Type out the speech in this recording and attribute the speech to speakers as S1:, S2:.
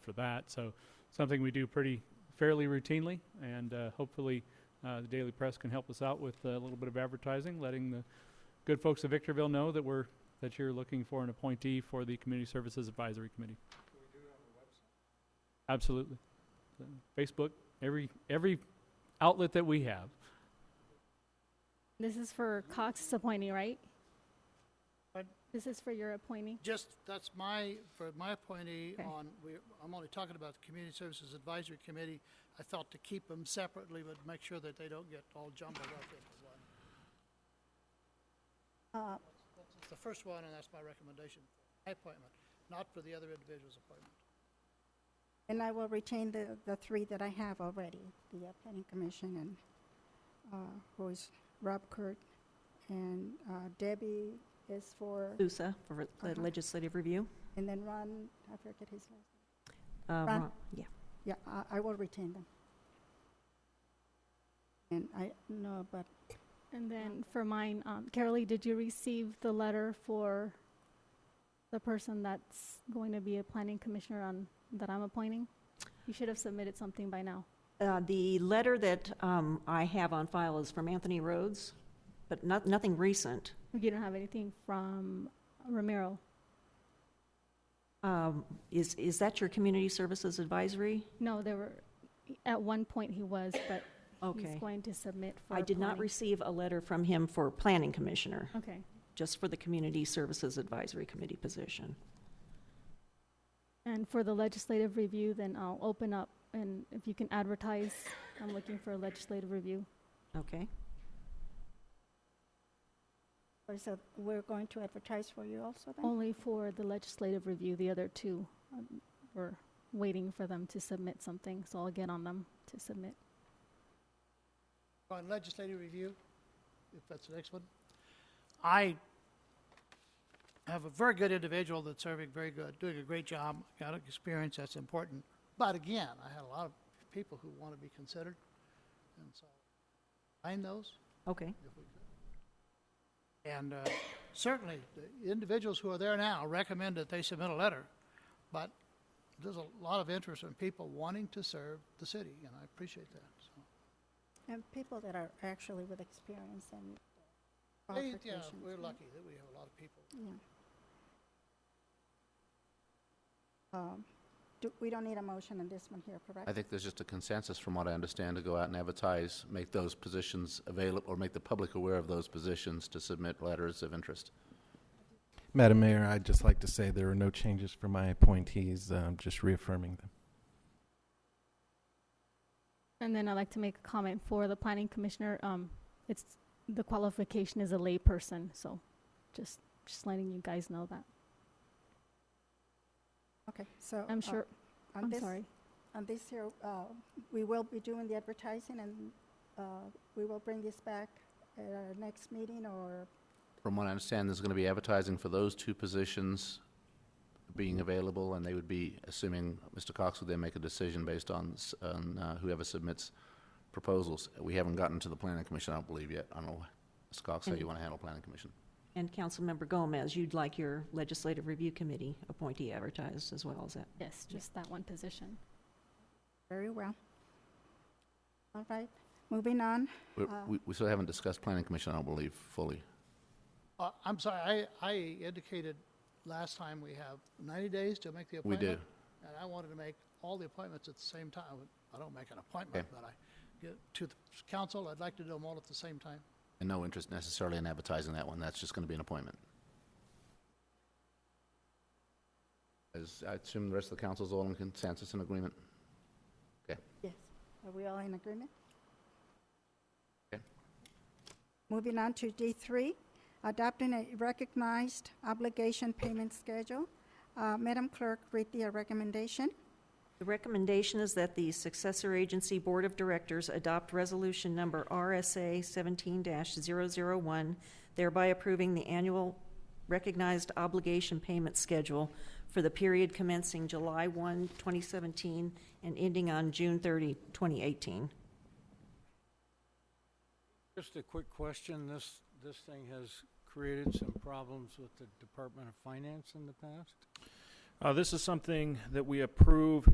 S1: for that. So something we do pretty fairly routinely, and uh, hopefully uh, the Daily Press can help us out with uh, a little bit of advertising, letting the good folks of Victorville know that we're that you're looking for an appointee for the Community Services Advisory Committee. Absolutely, So, Facebook, every every outlet that we have.
S2: This is for Cox's appointee, right?
S3: Pardon?
S2: This is for your appointee?
S3: Just, that's my, for my appointee
S2: Okay.
S3: on, we, I'm only talking about the Community Services Advisory Committee. I thought to keep them separately, but make sure that they don't get all jumbled up into one.
S2: Uh,
S3: It's the first one, and that's my recommendation, my appointment, not for the other individual's appointment.
S4: And I will retain the, the three that I have already, the uh, Planning Commission and, uh, who is Rob Kurt, and uh, Debbie is for,
S5: Lusa for re- the
S4: Uh-huh.
S5: legislative review.
S4: and then Ron, I forget his last.
S5: Uh,
S4: Ron.
S5: Ron- Yeah.
S4: Yeah, I, I will retain them. And I know about
S2: And then for mine, um, Carolee, did you receive the letter for the person that's going to be a planning commissioner on, that I'm appointing? You should have submitted something by now.
S5: Uh, The letter that um, I have on file is from Anthony Rhodes, but not, nothing recent.
S2: You don't have anything from Ramiro.
S5: Um, Is, is that your Community Services Advisory?
S2: No, there were, at one point he was, but he's
S5: Okay.
S2: going to submit for.
S5: I did not
S2: planning.
S5: receive a letter from him for Planning Commissioner,
S2: Okay.
S5: just for the Community Services Advisory Committee position.
S2: And for the legislative review, then I'll open up and if you can advertise, I'm looking for a legislative review.
S5: Okay?
S4: her, so we're going to advertise for you also
S5: Oh.
S4: then?
S2: Only for the legislative review, the other two, um, we're waiting for them to submit something, so I'll get on them to submit.
S3: On legislative review, if that's the next one. I have a very good individual that's serving very good, doing a great job, got experience, that's important. But again, I had a lot of people who want to be considered, and so find those
S5: Okay.
S3: if we could. And uh, certainly, the individuals who are there now recommend that they submit a letter, but there's a lot of interest in people wanting to serve the city, and I appreciate that, so.
S4: And people that are actually with experience and
S3: Hey, Yeah,
S4: qualifications.
S3: we're
S4: right?
S3: lucky that we have a lot of people.
S4: Yeah. Um, do- We don't need a motion on this one here, correct?
S6: I think there's just a consensus, from what I understand, to go out and advertise, make those positions available, or make the public aware of those positions to submit letters of interest.
S7: Madam Mayor, I'd just like to say there are no changes for my appointees, um, just reaffirming them.
S2: And then I'd like to make a comment for the planning commissioner, um, it's, the qualification is a layperson, so just, just letting you guys know that.
S4: Okay, so. uh,
S2: I'm sure,
S4: on
S2: I'm
S4: this-
S2: sorry.
S4: On this here, uh, we will be doing the advertising and uh, we will bring this back at our next meeting or,
S6: From what I understand, there's going to be advertising for those two positions being available, and they would be, assuming Mr. Cox would then make a decision based on s- on, uh, whoever submits proposals. We haven't gotten to the planning commission, I don't believe yet. I don't know, Mr. Cox, how you want to handle planning commission.
S5: And Councilmember Gomez, you'd like your Legislative Review Committee appointee advertised as well, is that?
S2: Yes, just that one position.
S4: very well. All right, moving on.
S6: We-
S4: Uh,
S6: We we still haven't discussed planning commission, I don't believe, fully.
S3: Uh, I'm sorry, I, I indicated last time we have 90 days to make the
S6: We
S3: appointment.
S6: do.
S3: And I wanted to make all the appointments at the same time. I don't make an appointment, but I get to the council, I'd like to do them all at the same time.
S6: And no interest necessarily in advertising that one, that's just going to be an appointment. As I assume the rest of the council's all in consensus and agreement?
S4: Yes, are we all in agreement?
S6: Okay.
S4: Moving on to D3, adopting a recognized obligation payment schedule. Uh, Madam Clerk, read the recommendation.
S5: The recommendation is that the successor agency Board of Directors adopt resolution number RSA seventeen one thereby approving the annual recognized obligation payment schedule for the period commencing July 1, 2017, and ending on June 30, 2018.
S8: Just a quick question. This, this thing has created some problems with the Department of Finance in the past?
S9: Uh, this is something that we approve